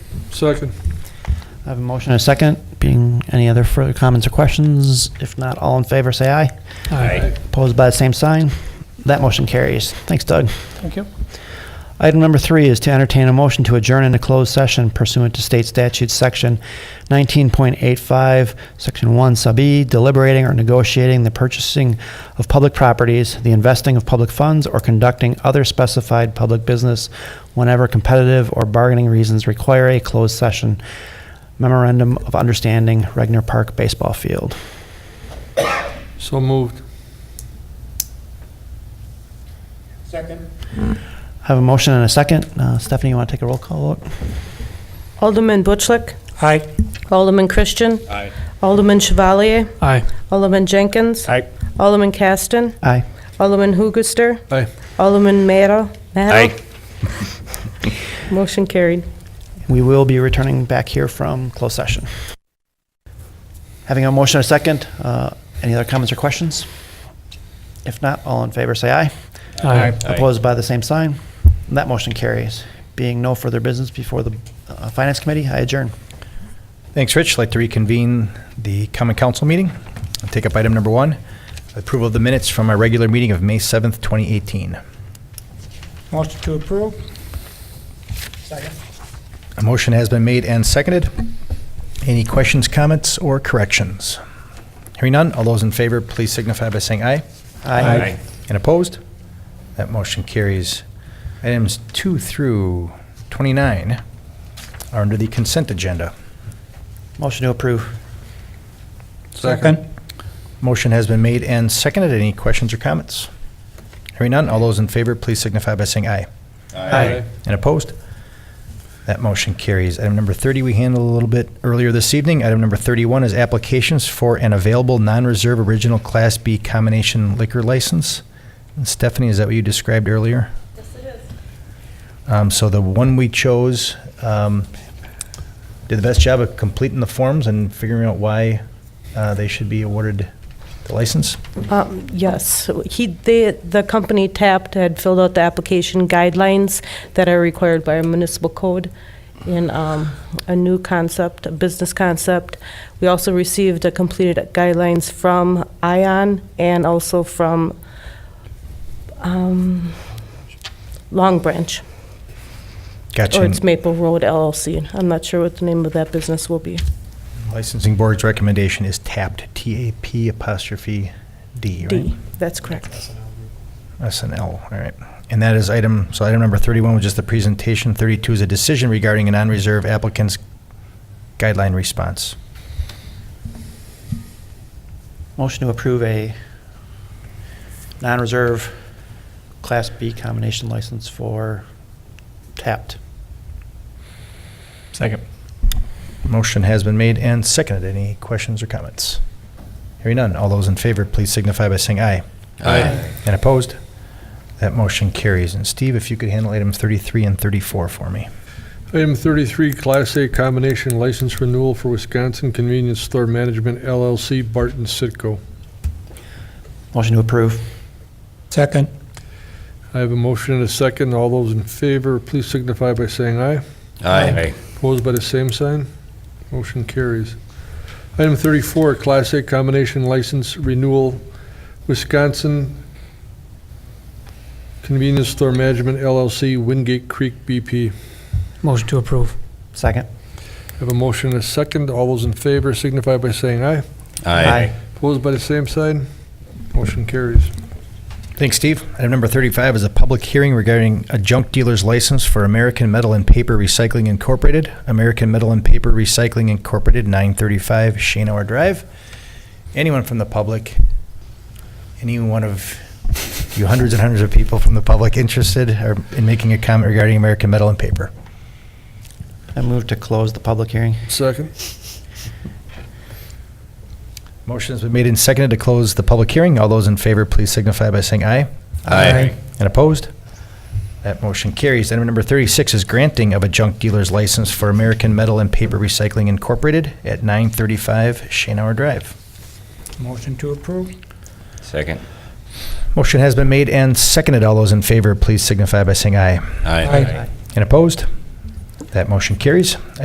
Second. I have a motion and a second. Being any other further comments or questions? If not, all in favor, say aye. Aye. Opposed by the same sign. That motion carries. Thanks, Doug. Thank you. Item number three is to entertain a motion to adjourn into closed session pursuant to state statute section 19.85, section 1 sub e, deliberating or negotiating the purchasing of public properties, the investing of public funds, or conducting other specified public business whenever competitive or bargaining reasons require a closed session. Memorandum of Understanding, Regner Park Baseball Field. So moved. Second. I have a motion and a second. Uh, Stephanie, you want to take a roll call vote? Alderman Butchlick, Aye. Alderman Christian, Aye. Alderman Chevalier, Aye. Alderman Jenkins, Aye. Alderman Caston, Aye. Alderman Hoogaster, Aye. Alderman Mero. Aye. Motion carried. We will be returning back here from closed session. Having a motion and a second, uh, any other comments or questions? If not, all in favor, say aye. Aye. Opposed by the same sign. That motion carries. Being no further business before the uh, Finance Committee, I adjourn. Thanks, Rich. I'd like to reconvene the common council meeting. I'll Take up item number one, approval of the minutes from our regular meeting of May 7th, 2018. Motion to approve? A motion has been made and seconded. Any questions, comments, or corrections? Hearing none, all those in favor, please signify by saying aye. Aye. And opposed? That motion carries. Items 2 through 29 are under the consent agenda. Motion to approve. Second. Motion has been made and seconded. Any questions or comments? Hearing none, all those in favor, please signify by saying aye. Aye. And opposed? That motion carries. Item number 30, we handled a little bit earlier this evening. Item number 31 is applications for an available non-reserve original Class B combination liquor license. And Stephanie, is that what you described earlier? Yes, it is. So the one we chose um, did the best job of completing the forms and figuring out why uh, they should be awarded the license. Um, Yes, he, the, the company tapped had filled out the application guidelines that are required by our municipal code in um, a new concept, a business concept. We also received a completed guidelines from ION and also from um, Long Branch, Gotcha. or it's Maple Road LLC. I'm not sure what the name of that business will be. Licensing Board's recommendation is tapped, T-A-P apostrophe D, right? D, that's correct. SNL, all right. And that is item, so item number 31 was just the presentation. 32 is a decision regarding a non-reserve applicant's guideline response. Motion to approve a non-reserve Class B combination license for Tapped. Second. Motion has been made and seconded. Any questions or comments? Hearing none. All those in favor, please signify by saying aye. Aye. And opposed? That motion carries. And Steve, if you could handle items 33 and 34 for me. Item 33, Class A Combination License Renewal for Wisconsin Convenience Store Management LLC, Barton Sitco. Motion to approve. Second. I have a motion and a second. All those in favor, please signify by saying aye. Aye. Opposed by the same sign. Motion carries. Item 34, Class A Combination License Renewal, Wisconsin Convenience Store Management LLC, Wingate Creek BP. Motion to approve? Second. I have a motion and a second. All those in favor signify by saying aye. Opposed by the same sign. Motion carries. Thanks, Steve. Item number 35 is a public hearing regarding a junk dealer's license for American Metal and Paper Recycling Incorporated, American Metal and Paper Recycling Incorporated, 935 Shanehour Drive. Anyone from the public, any one of you hundreds and hundreds of people from the public interested or in making a comment regarding American Metal and Paper? I move to close the public hearing. Second. Motion has been made and seconded to close the public hearing. All those in favor, please signify by saying aye. Aye. And opposed? That motion carries. Item number 36 is granting of a junk dealer's license for American Metal and Paper Recycling Incorporated at 935 Shanehour Drive. Motion to approve? Second. Motion has been made and seconded. All those in favor, please signify by saying aye. Aye. Aye. And opposed? That motion carries.